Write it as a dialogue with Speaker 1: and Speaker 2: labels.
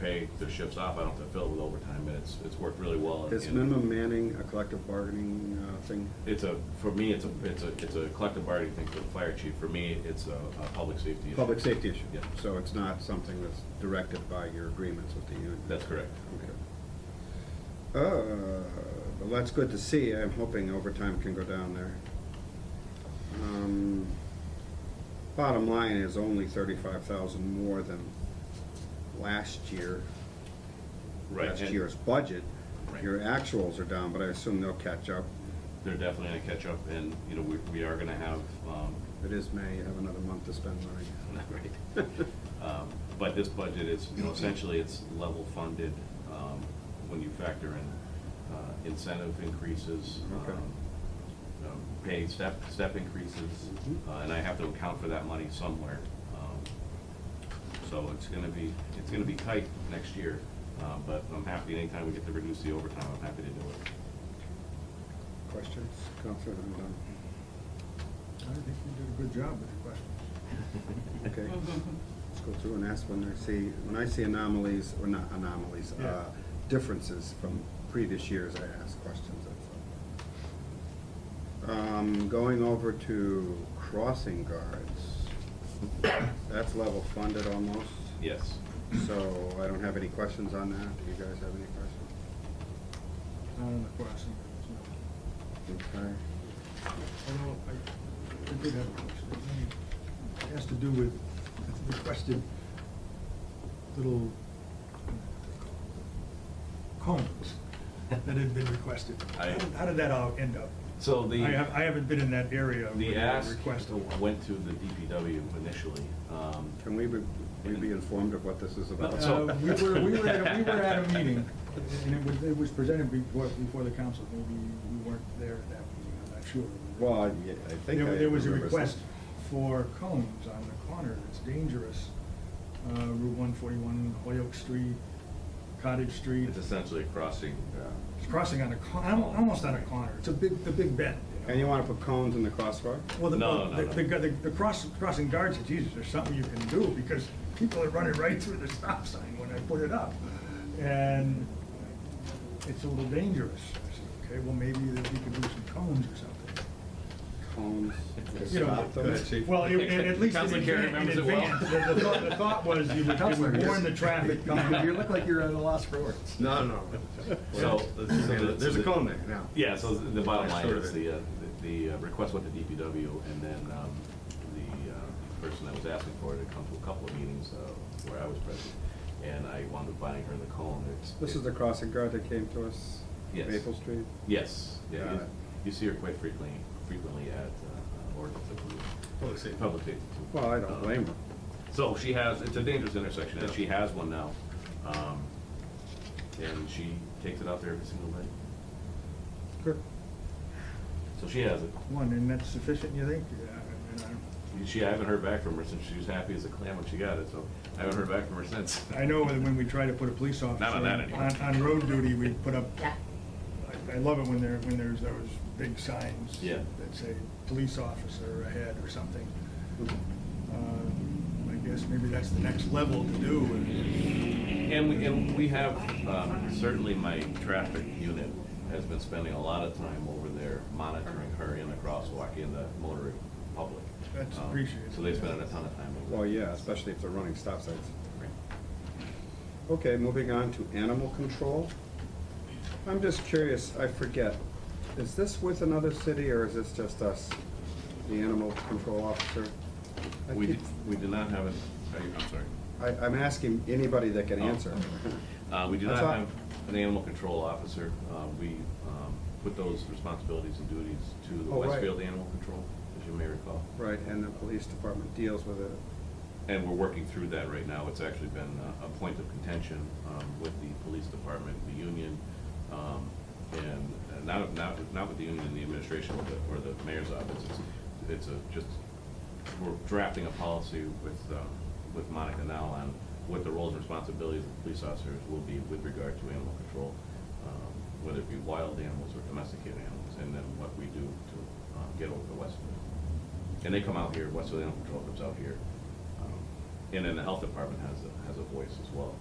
Speaker 1: pay their shifts off, I don't have to fill it with overtime, and it's, it's worked really well.
Speaker 2: Is
Speaker 1: And-
Speaker 2: minimum manning a collective bargaining uh, thing?
Speaker 1: It's a, for me, it's a, it's a, it's a collective bargaining thing for the fire chief, for me, it's a, a public safety issue.
Speaker 2: Public safety issue?
Speaker 1: Yeah.
Speaker 2: So it's not something that's directed by your agreements with the union?
Speaker 1: That's correct.
Speaker 2: Okay. Uh, Well, that's good to see. I'm hoping overtime can go down there. Um, Bottom line is only thirty-five thousand more than last year,
Speaker 1: Right,
Speaker 2: last
Speaker 1: and
Speaker 2: year's budget.
Speaker 1: Right.
Speaker 2: Your actuals are down, but I assume they'll catch up.
Speaker 1: They're definitely gonna catch up, and, you know, we, we are gonna have, um,
Speaker 2: It is May, you have another month to spend money.
Speaker 1: right. Um, But this budget is, you know, essentially it's level funded, um, when you factor in, uh, incentive increases,
Speaker 2: Okay.
Speaker 1: um, um, pay step, step increases,
Speaker 2: Mhm.
Speaker 1: uh, and I have to account for that money somewhere. Um, So it's gonna be, it's gonna be tight next year, uh, but I'm happy anytime we get to reduce the overtime, I'm happy to do it.
Speaker 2: Questions? Counselor, I'm done.
Speaker 3: I think you did a good job with your questions.
Speaker 2: Okay. Let's go through and ask when I see, when I see anomalies, or not anomalies,
Speaker 3: Yeah.
Speaker 2: uh, differences from previous years, I ask questions. that's all. Um, Going over to crossing guards, that's level funded almost,
Speaker 1: Yes.
Speaker 2: so I don't have any questions on that. Do you guys have any questions?
Speaker 3: Not on the crossing guards, no.
Speaker 2: Okay.
Speaker 3: Although, I, I did have a question. It has to do with the requested little cones that had been requested.
Speaker 1: I-
Speaker 3: How did that all end up?
Speaker 1: So the.
Speaker 3: I have, I haven't been in that area
Speaker 1: The
Speaker 3: where that
Speaker 1: ask
Speaker 3: request.
Speaker 1: went to the DPW initially. um,
Speaker 2: Can we be we be informed of what this is about?
Speaker 1: So-
Speaker 3: Uh, We were, we were at, a- we were at a meeting, and it was, it was presented before, before the council, maybe we weren't there at that meeting, I'm not sure.
Speaker 2: Well, I- I think I
Speaker 3: There there was a
Speaker 2: remember
Speaker 3: request
Speaker 2: something.
Speaker 3: for cones on the corner, it's dangerous, uh, Route one forty-one, Hoyoke Street, Cottage Street,
Speaker 1: It's essentially a crossing.
Speaker 3: it's crossing on a con, al- almost on a corner, it's a big, the big bend, you know?
Speaker 2: And you want to put cones in the crosswalk?
Speaker 3: Well, the,
Speaker 1: No,
Speaker 3: the,
Speaker 1: no,
Speaker 3: the,
Speaker 1: no.
Speaker 3: the the cross, crossing guards, said, Jesus, there's something you can do, because people are running right through the stop sign when I put it up. And it's a little dangerous. I said, okay, well, maybe that we could do some cones or something.
Speaker 2: Cones? to
Speaker 3: You know,
Speaker 2: stop them?
Speaker 3: that's- well, it- it- at least in
Speaker 1: Councilor Carey
Speaker 3: advan- in
Speaker 1: remembers it well.
Speaker 3: advance, the the thought, the thought was you would, you would warn the traffic
Speaker 4: You
Speaker 3: coming.
Speaker 4: look like you're at a loss for words.
Speaker 2: No, no.
Speaker 1: So. so the-
Speaker 2: There's a cone there now.
Speaker 1: Yeah, so the the bottom line
Speaker 2: Sort of
Speaker 1: is
Speaker 2: it.
Speaker 1: the, uh, the the, uh, request went to DPW and then um, the uh, person that was asking for it had come to a couple of meetings uh, where I was present. And I wound up buying her the cone. It's-
Speaker 2: This is the crossing guard that came to us?
Speaker 1: Yes.
Speaker 2: Maple Street?
Speaker 1: Yes, yeah,
Speaker 2: Got
Speaker 1: you-
Speaker 2: it.
Speaker 1: you see her quite frequently, frequently at uh, uh, Oregon. Public safety. Public safety.
Speaker 2: Well, I don't
Speaker 1: Um,
Speaker 2: blame her.
Speaker 1: So she has, it's a dangerous intersection, and she has one now. Um, And she takes it out there every single day.
Speaker 2: Good.
Speaker 1: So she has it.
Speaker 3: One, and that's sufficient, you think? Yeah, I- I don't-
Speaker 1: She, I haven't heard back from her since she was happy as a clam when she got it, so I haven't heard back from her since.
Speaker 3: I know that when we try to put a police officer
Speaker 1: Not on that anymore.
Speaker 3: on, on road duty, we put up, I- I love it when there, when there's those big signs.
Speaker 1: Yeah.
Speaker 3: That say, police officer ahead or something. Uh, I guess maybe that's the next level to do. and-
Speaker 1: And we, and we have, um, certainly my traffic unit has been spending a lot of time over there monitoring her in the crosswalk, in the motoring public.
Speaker 3: That's
Speaker 1: Um,
Speaker 3: appreciated.
Speaker 1: So they spend a ton of time over there.
Speaker 2: Well, yeah, especially if they're running stop signs.
Speaker 1: Right.
Speaker 2: Okay, moving on to animal control. I'm just curious, I forget, is this with another city or is this just us? The animal control officer? I
Speaker 1: We,
Speaker 2: keep-
Speaker 1: did- we do not have it, are you- I'm sorry.
Speaker 2: I, I'm asking anybody that can
Speaker 1: Oh.
Speaker 2: answer.
Speaker 1: Uh, we do
Speaker 2: I
Speaker 1: not
Speaker 2: thought-
Speaker 1: have an animal control officer. Uh, we, um, put those responsibilities and duties to the
Speaker 2: Oh, right.
Speaker 1: Westfield Animal Control, as you may recall.
Speaker 2: Right, and the police department deals with it.
Speaker 1: And we're working through that right now. It's actually been a, a point of contention, um, with the police department, the union, um, and and not, not, not with the union and the administration or the, or the mayor's office. It's- It's a, just, we're drafting a policy with, um, with Monica now on what the roles and responsibilities of police officers will be with regard to animal control, um, whether it be wild animals or domesticated animals, and then what we do to, um, get over the Westfield. And they come out here, Westfield Animal Control comes out here. Um, And then the health department has a, has a voice as well.